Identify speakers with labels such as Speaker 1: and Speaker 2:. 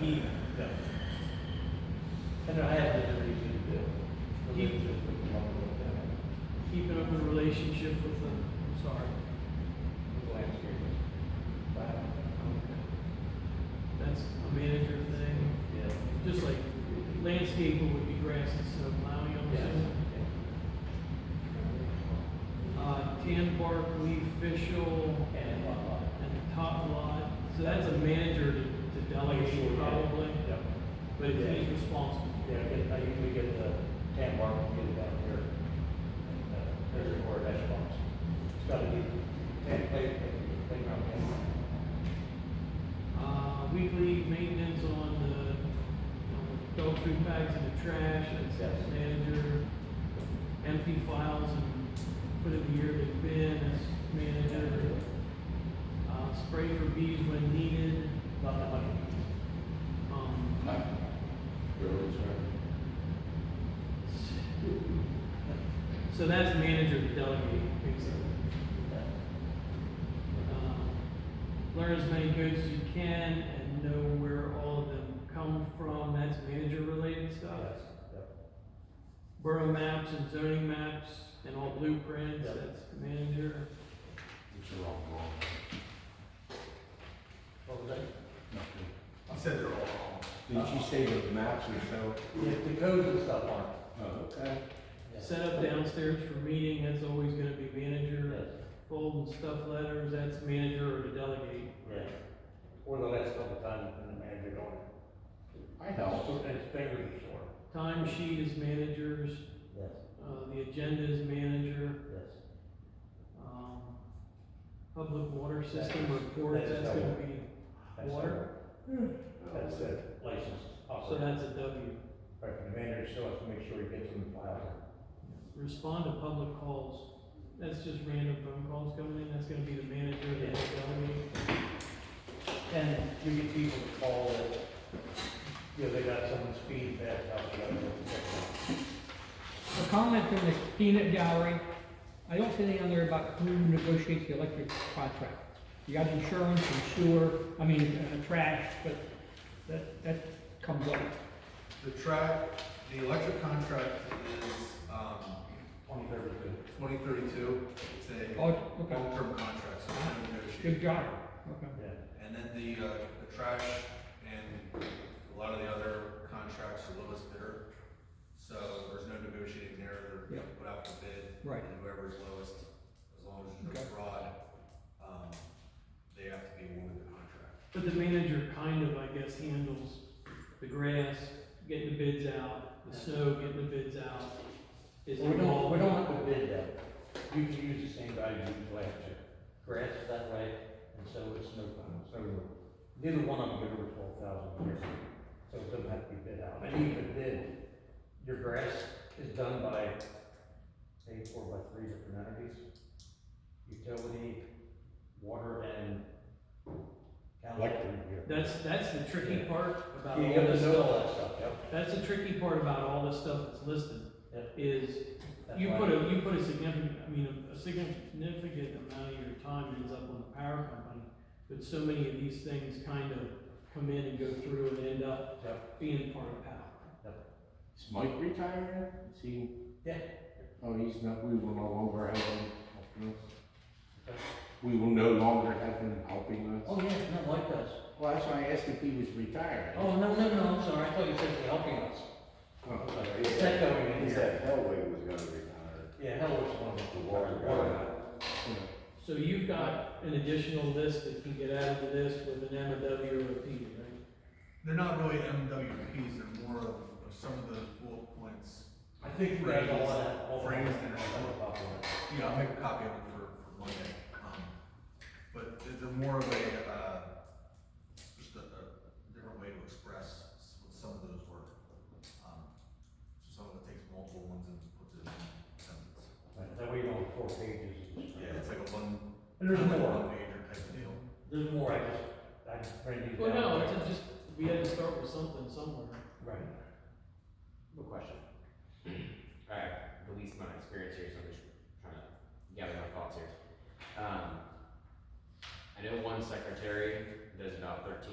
Speaker 1: he, and I had the reason. Keep, keeping up the relationship with the, I'm sorry. That's a manager thing, just like landscaping would be grass instead of plowing, I'm assuming. Uh, tan bark, leaf official,
Speaker 2: uh,
Speaker 1: and top lot, so that's a manager to to delegate probably,
Speaker 2: Yep.
Speaker 1: but he's responsible.
Speaker 2: Yeah, I get, I usually get the tan mark, and get it down here. And, uh, There's a board hash box. It's gotta be tan play, play- playground hash box.
Speaker 1: Uh, weekly maintenance on the, on the dog food bags and the trash,
Speaker 2: Yes.
Speaker 1: that's manager. Empty files and put in the year they've been, that's manager. Uh, spray for bees when needed,
Speaker 2: Not that much.
Speaker 1: um, so that's manager to delegate, basically. Um, Learn as many codes as you can and know where all of them come from, that's manager related stuff.
Speaker 2: Yes, yep.
Speaker 1: Borough maps and zoning maps and all blueprints,
Speaker 2: Yep.
Speaker 1: that's manager.
Speaker 2: What was that?
Speaker 3: I said they're all wrong.
Speaker 4: Did you say the maps are so?
Speaker 2: The, the codes and stuff aren't.
Speaker 4: Oh, okay.
Speaker 2: Yes.
Speaker 1: Set up downstairs for meeting, that's always gonna be
Speaker 2: Yes.
Speaker 1: manager. Fold and stuff letters, that's manager or to delegate.
Speaker 2: Yeah. Or the last couple times when the manager on it.
Speaker 4: I helped.
Speaker 2: And his fingers are sore.
Speaker 1: Time sheet is managers,
Speaker 2: Yes,
Speaker 1: uh, the agenda is manager,
Speaker 2: yes.
Speaker 1: um, public water system reports, that's gonna be,
Speaker 2: That's
Speaker 1: Water?
Speaker 2: it. Hmm. That's the license
Speaker 1: so
Speaker 2: officer.
Speaker 1: that's a W.
Speaker 2: Right, the manager still has to make sure he gets them filed.
Speaker 1: Respond to public calls, that's just random phone calls coming in, that's gonna be the manager or the delegate.
Speaker 2: And you get people to call that, you know, they got someone's feedback, how they got it.
Speaker 5: A comment from the peanut gallery, I don't see anything on there about who negotiates the electric contract. You got insurance and sewer, I mean, uh, trash, but that, that comes up.
Speaker 3: The track, the electric contract is, um,
Speaker 2: Twenty-third is good.
Speaker 3: twenty thirty-two, it's a
Speaker 5: Oh, okay,
Speaker 3: long-term contract, so we don't
Speaker 5: good
Speaker 3: negotiate.
Speaker 5: job, okay.
Speaker 2: Yeah.
Speaker 3: And then the, uh, the trash and a lot of the other contracts are lowest bidder, so there's no negotiating there, they're
Speaker 5: Yeah.
Speaker 3: put out for bid.
Speaker 5: Right.
Speaker 3: And whoever's lowest, as long as there's
Speaker 5: Okay.
Speaker 3: no fraud, um, they have to be awarded the contract.
Speaker 1: But the manager kind of, I guess, handles the grass, getting the bids out, the snow, getting the bids out. Is
Speaker 2: Well, We don't, we
Speaker 1: involved.
Speaker 2: don't have to bid that. You can use the same guy you used last year. Grass is that way, and so it's no, so neither one of them get over twelve thousand years. So it doesn't have to be bid out. And even bid, your grass is done by, say, four by three different entities. Utility, water, and county.
Speaker 1: That's, that's the tricky
Speaker 2: Yeah.
Speaker 1: part about
Speaker 2: You
Speaker 1: all
Speaker 2: gotta
Speaker 1: this
Speaker 2: know
Speaker 1: stuff.
Speaker 2: all that stuff, yep.
Speaker 1: That's the tricky part about all this stuff that's listed,
Speaker 2: Yeah.
Speaker 1: is
Speaker 2: That's
Speaker 1: you
Speaker 2: why-
Speaker 1: put a, you put a significant, I mean, a significant amount of your time ends up on the power company. But so many of these things kind of come in and go through and end up
Speaker 2: Yep.
Speaker 1: being part of power.
Speaker 4: Is Mike retiring? Is he?
Speaker 2: Yeah.
Speaker 4: Oh, he's not, we will no longer have him helping us. We will no longer have him helping us.
Speaker 2: Oh, yeah, not like us.
Speaker 4: Well, that's why I asked if he was retired.
Speaker 2: Oh, no, no, no, I'm sorry, I thought you said you're helping us.
Speaker 4: Oh,
Speaker 2: Is that going in
Speaker 6: He
Speaker 2: here?
Speaker 6: said Hellway was gonna retire.
Speaker 2: Yeah, hell, it's one of
Speaker 6: The
Speaker 2: the
Speaker 6: water guy.
Speaker 4: yeah.
Speaker 1: So you've got an additional list that can get added to this with an M and W or a P, right?
Speaker 3: They're not really MWPs, they're more of, of some of those bullet points.
Speaker 2: I think we have all that. all that-
Speaker 3: Frames and-
Speaker 2: all that about that.
Speaker 3: Yeah, I'll make a copy of it for, for Monday. Um, but they're- they're more of a, uh, just a, a different way to express s- what some of those were. Um, So someone that takes multiple ones and puts it in a sentence.
Speaker 2: Right, That way you don't have four pages.
Speaker 3: Yeah, it's like a one,
Speaker 2: And there's more,
Speaker 3: one pager type of deal.
Speaker 2: there's more, I just, I just printed these
Speaker 1: Well,
Speaker 2: down.
Speaker 1: no, it's just, we had to start with something somewhere.
Speaker 2: Right.
Speaker 7: No question. Alright, the least amount of experience here, so I'm just trying to gather my thoughts here. Um, I know one secretary does about thirteen